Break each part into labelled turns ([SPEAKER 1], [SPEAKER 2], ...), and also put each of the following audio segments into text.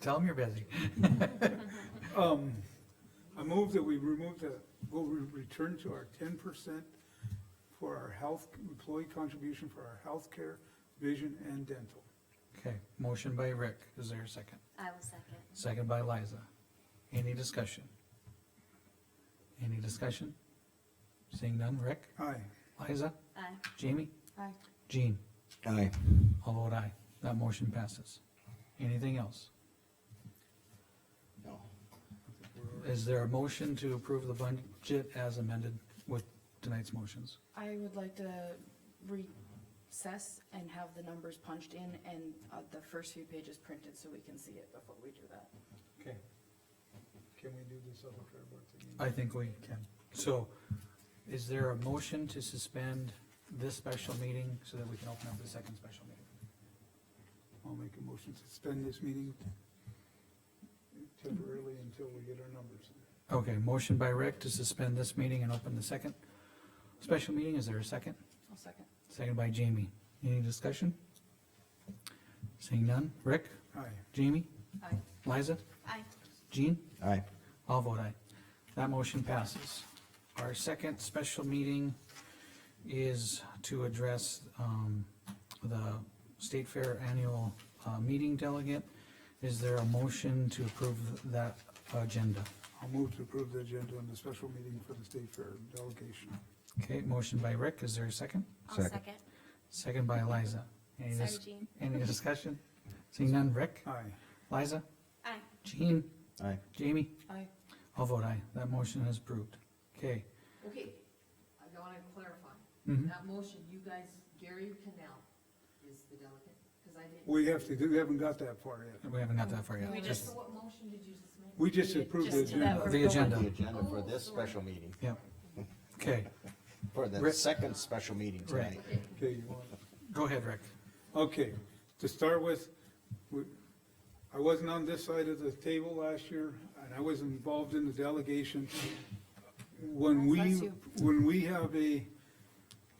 [SPEAKER 1] Tell them you're busy.
[SPEAKER 2] Um, I move that we remove the, we'll re- return to our ten percent for our health, employee contribution for our healthcare, vision and dental.
[SPEAKER 1] Okay, motion by Rick, is there a second?
[SPEAKER 3] I will second.
[SPEAKER 1] Second by Liza. Any discussion? Any discussion? Seeing none, Rick,
[SPEAKER 2] Aye.
[SPEAKER 1] Liza,
[SPEAKER 3] Aye.
[SPEAKER 1] Jamie,
[SPEAKER 4] Aye.
[SPEAKER 1] Jean,
[SPEAKER 5] Aye.
[SPEAKER 1] all vote aye, that motion passes. Anything else?
[SPEAKER 5] No.
[SPEAKER 1] Is there a motion to approve the budget as amended with tonight's motions?
[SPEAKER 4] I would like to recess and have the numbers punched in and uh, the first few pages printed so we can see it before we do that.
[SPEAKER 2] Okay. Can we do this other fair board thing?
[SPEAKER 1] I think we can. So, is there a motion to suspend this special meeting so that we can open up the second special meeting?
[SPEAKER 2] I'll make a motion to suspend this meeting temporarily until we get our numbers.
[SPEAKER 1] Okay, motion by Rick to suspend this meeting and open the second special meeting. Is there a second?
[SPEAKER 4] I'll second.
[SPEAKER 1] Second by Jamie. Any discussion? Seeing none. Rick,
[SPEAKER 2] Aye.
[SPEAKER 1] Jamie,
[SPEAKER 4] Aye.
[SPEAKER 1] Liza,
[SPEAKER 3] Aye.
[SPEAKER 1] Jean,
[SPEAKER 5] Aye.
[SPEAKER 1] all vote aye. That motion passes. Our second special meeting is to address, um, the State Fair Annual, uh, Meeting Delegate. Is there a motion to approve that agenda?
[SPEAKER 2] I'll move to approve the agenda on the special meeting for the state fair delegation.
[SPEAKER 1] Okay, motion by Rick. Is there a second?
[SPEAKER 3] I'll
[SPEAKER 5] Second.
[SPEAKER 3] second.
[SPEAKER 1] Second by Liza. Any,
[SPEAKER 3] Sorry,
[SPEAKER 1] dis-
[SPEAKER 3] Jean.
[SPEAKER 1] any discussion? Seeing none, Rick,
[SPEAKER 2] Aye.
[SPEAKER 1] Liza,
[SPEAKER 3] Aye.
[SPEAKER 1] Jean,
[SPEAKER 5] Aye.
[SPEAKER 1] Jamie,
[SPEAKER 4] Aye.
[SPEAKER 1] I'll vote aye. That motion is approved. Okay,
[SPEAKER 6] Okay, I wanna clarify,
[SPEAKER 1] mhm.
[SPEAKER 6] that motion, you guys, Gary Canal is the delegate, cause I didn't.
[SPEAKER 2] We have to, do. we haven't got that far yet.
[SPEAKER 1] we haven't got that far
[SPEAKER 6] We
[SPEAKER 1] yet.
[SPEAKER 6] just, so
[SPEAKER 1] Just
[SPEAKER 6] what motion did you just make?
[SPEAKER 2] We just approved the
[SPEAKER 4] Just to
[SPEAKER 2] agenda.
[SPEAKER 4] that first
[SPEAKER 1] the
[SPEAKER 4] bullet.
[SPEAKER 5] The
[SPEAKER 1] agenda,
[SPEAKER 5] agenda for this special meeting,
[SPEAKER 1] yeah. Okay,
[SPEAKER 5] for
[SPEAKER 1] Rick-
[SPEAKER 5] the second special meeting
[SPEAKER 1] Right.
[SPEAKER 5] tonight.
[SPEAKER 6] Okay,
[SPEAKER 2] Okay, you want?
[SPEAKER 1] go ahead, Rick.
[SPEAKER 2] Okay, to start with, we- I wasn't on this side of the table last year, and I was involved in the delegation. When we,
[SPEAKER 4] Bless you.
[SPEAKER 2] when we have a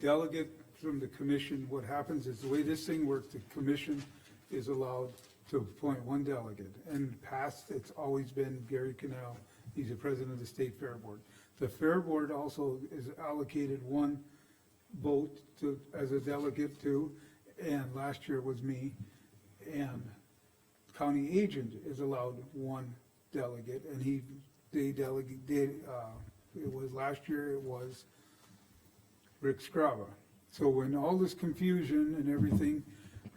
[SPEAKER 2] delegate from the commission, what happens is the way this thing works, the commission is allowed to appoint one delegate. In the past, it's always been Gary Canal, he's the president of the state fair board. The fair board also is allocated one vote to, as a delegate to, and last year was me. And county agent is allowed one delegate, and he, they delegate, did, uh, it was, last year it was Rick Scrava. So when all this confusion and everything,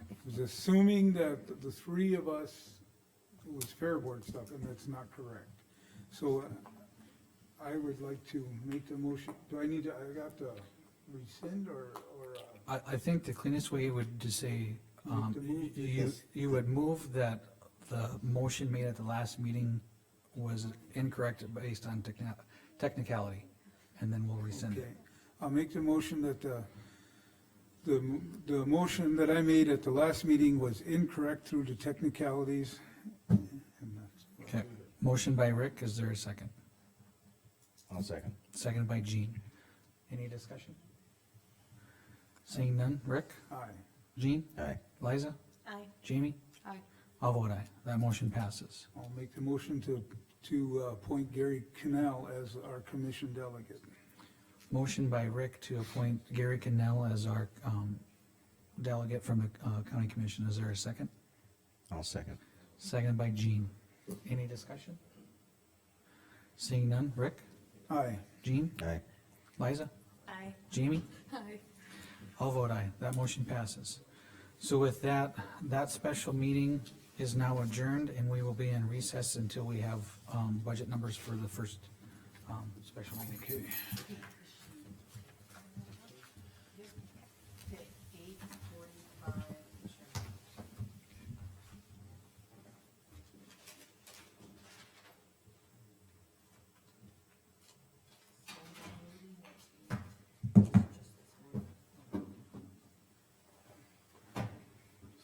[SPEAKER 2] it was assuming that the three of us was fair board stuff, and that's not correct. So uh, I would like to make the motion, do I need to, I got to rescind or, or, uh,
[SPEAKER 1] I, I think the cleanest way would to say, um,
[SPEAKER 2] Move to move
[SPEAKER 1] you,
[SPEAKER 2] this.
[SPEAKER 1] you would move that the motion made at the last meeting was incorrect based on techni- technicality, and then we'll rescind
[SPEAKER 2] Okay,
[SPEAKER 1] it.
[SPEAKER 2] I'll make the motion that the, the, the motion that I made at the last meeting was incorrect through the technicalities. and that's-
[SPEAKER 1] Okay, motion by Rick, is there a second?
[SPEAKER 5] I'll second.
[SPEAKER 1] Second by Jean. Any discussion? Seeing none, Rick,
[SPEAKER 2] Aye.
[SPEAKER 1] Jean,
[SPEAKER 5] Aye.
[SPEAKER 1] Liza,
[SPEAKER 3] Aye.
[SPEAKER 1] Jamie,
[SPEAKER 4] Aye.
[SPEAKER 1] I'll vote aye, that motion passes.
[SPEAKER 2] I'll make the motion to, to uh, appoint Gary Canal as our commission delegate.
[SPEAKER 1] Motion by Rick to appoint Gary Cannell as our, um, delegate from the, uh, county commission, is there a second?
[SPEAKER 5] I'll second.
[SPEAKER 1] Second by Jean. Any discussion? Seeing none, Rick,
[SPEAKER 2] Aye.
[SPEAKER 1] Jean,
[SPEAKER 5] Aye.
[SPEAKER 1] Liza,
[SPEAKER 3] Aye.
[SPEAKER 1] Jamie,
[SPEAKER 3] Aye.
[SPEAKER 1] I'll vote aye, that motion passes. So with that, that special meeting is now adjourned, and we will be in recess until we have, um, budget numbers for the first, um, special meeting.
[SPEAKER 6] Eight forty-five, sure. So, maybe next week,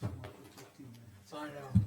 [SPEAKER 6] just this morning.
[SPEAKER 1] Sorry, now.